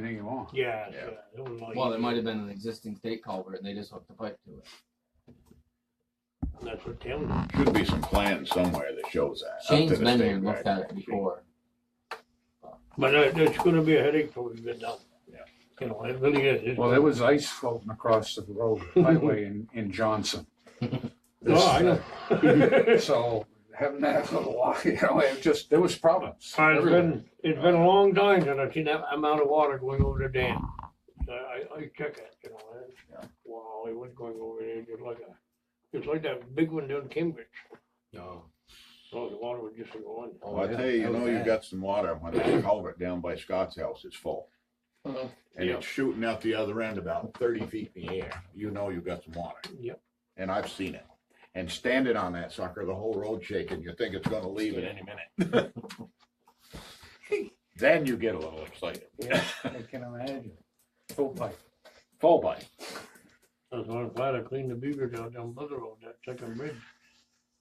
huh? Yeah, Yeah. yeah, it wasn't like- Well, there might have been an existing state culvert and they just hooked the pipe to it. That's what Tim, Should be some plans somewhere that shows that. up to Shane's the been state here and looked at record. it before. but it- it's gonna be a headache till we get done. Yeah. You know, it really is. It's- Well, there was ice floating across the road highway in, in Johnson. No, Oh, I know. It's So having that for a while, you know, it just, there was problems. everywhere. been, it's been a long time since I've seen that amount of water going over the dam. I, I, I check it, you know, Yeah. and, wow, it was going over there just like a, it's like that big one down Cambridge. No. Oh, the water was just going. Oh, Well, I yeah, tell you, you that was know, you've bad. got some water when that culvert down by Scott's house is full. Uh-huh. Mhm. And Yeah. it's shooting out the other end about thirty feet in the air. You know you've got some water. Yep. And I've seen it. And standing on that sucker, the whole road shaking, you think it's gonna leave at any minute. Then you get a little excited. Yeah, I can imagine. Full pipe. Full bite. That's why I'm glad I cleaned the beaver down down Mother Road, that second bridge.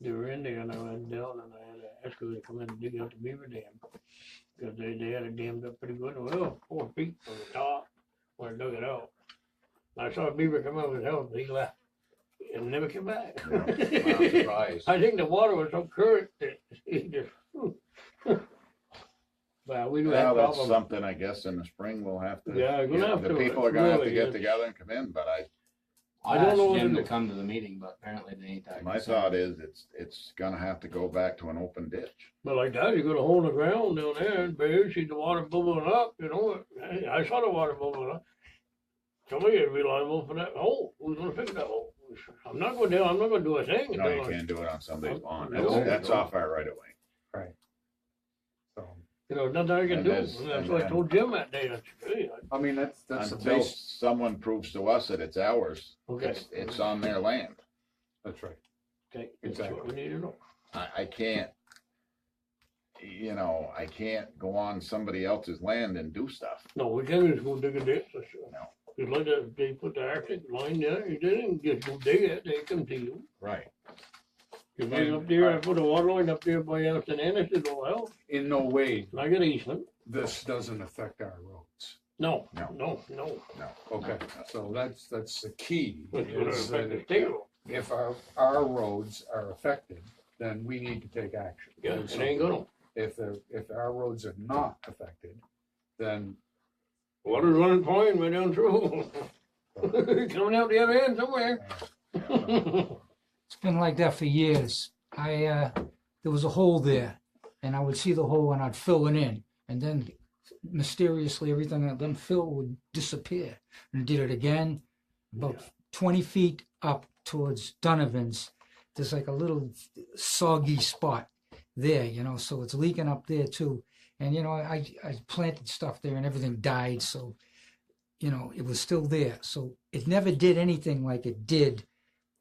They were in there and I went down and I had an excavator come in and dig out the beaver dam. Cause they, they had it dammed up pretty good, well, four feet from the top when I dug it out. I saw a beaver come out of his house, but he left and never came back. Yeah, I'm surprised. I think the water was so current that he just. Well, we do Well, have that's problems. something, I guess, in the spring we'll have to. Yeah, we're gonna have The to, people are gonna have to really, get it's- together and come in, but I, I I don't asked know Jim whether- to come to the meeting, but apparently they ain't that. my thought is, it's, it's gonna have to go back to an open ditch. But like that, you got a hole in the ground down there, and bear, see the water bubbling up, you know, I, I saw the water bubbling up. Somebody is reliable for that hole, who's gonna fix that hole? I'm not going down, I'm not gonna do a thing. No, you until I- can't do it on somebody's lawn. No, That's, that's no. off our right of way. So, You know, nothing I can And do, there's- and that's and- what I and- told Jim that day, I said, hey, I- I mean, that's, that's the Until base. someone proves to us that it's ours, okay. it's, it's on their land. That's right. Okay, that's what we need to know. I, I can't, you know, I can't go on somebody else's land and do stuff. No, we can't just go dig a ditch, that's sure. No. It's like that, they put the arctic line there, you didn't just go dig it, they come to you. Right. You made up there, I put a water line up there by Anderson Anderson's old house, In no way, and I got an easement. this doesn't affect our roads. No, No. no, no. Okay, Uh, so that's, that's the key. It's gonna is affect the that state road. If our, our roads are affected, then we need to take action. Yeah, Do it something. ain't gonna. If, the- if our roads are not affected, then Water's running fine right down through. Coming out the other end somewhere. It's been like that for years. I, uh, there was a hole there and I would see the hole and I'd fill it in. And then mysteriously, everything that then filled would disappear. And I did it again, about 20 feet up towards Donovan's. There's like a little soggy spot there, you know, so it's leaking up there too. And, you know, I, I planted stuff there and everything died. So, you know, it was still there. So it never did anything like it did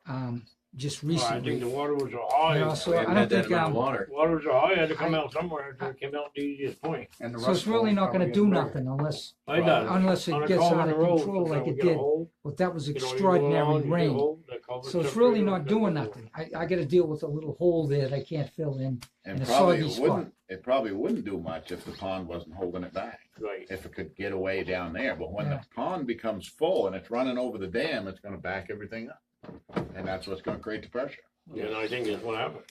um, just Well, I think the recently. water was a high. No, so- I don't think, um, Water. Water was a high, had to come out somewhere, so it came out the easiest point. and the rest. So it's really not gonna do nothing unless, I Right. done. unless On it a gets culvert out in of the road, control like sometimes we it get a did. hole, But that was you know, you go along, extraordinary you get a rain. hole, that culvert's So it's up really there, not that doing culvert. nothing. I, I gotta deal with a little hole there that I can't fill in. And In a probably soggy it spot. wouldn't, it probably wouldn't do much if the pond wasn't holding it back, Right. if it could get away down there. But when the Yeah. pond becomes full and it's running over the dam, it's gonna back everything up. And that's what's gonna create the pressure. And I think that's what happened.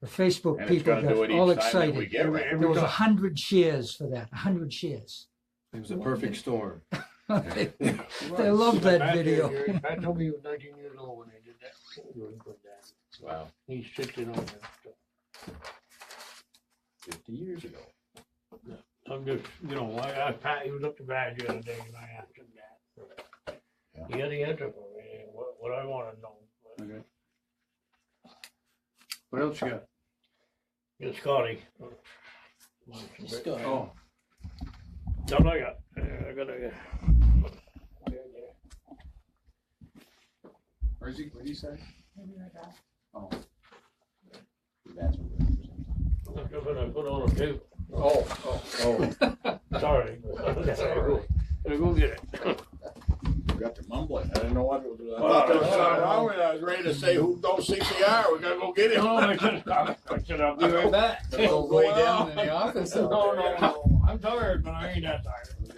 The Facebook And it's people gonna do it got all each time that we excited. get rain. There was a hundred shares for that, a hundred shares. It was a perfect storm. They they loved that Pat video. there, Jerry, Pat told me he was nineteen years old when they did that. He was good then. Wow, He's sitting on that stuff. fifty years ago. I'm just, you know, I, I, Pat, he was up to bad the other day and I asked him that. He had the answer for me, what, what I wanna know. but Okay. What else you got? It's Scotty. Oh, That's all I got, I gotta, uh, where's he, what'd he say? Oh, I'm gonna put on a tape, oh, oh, oh. sorry. That's all right. Gonna go get it. You got to mumble it. I didn't know what it was. I Well, thought there was that's something all right. wrong with it. I was ready to say, who don't CPR? We gotta go get him. No, I said, I said, I'll be right back. That Go lay down in the office. No, no, no, I'm tired, but I ain't that tired.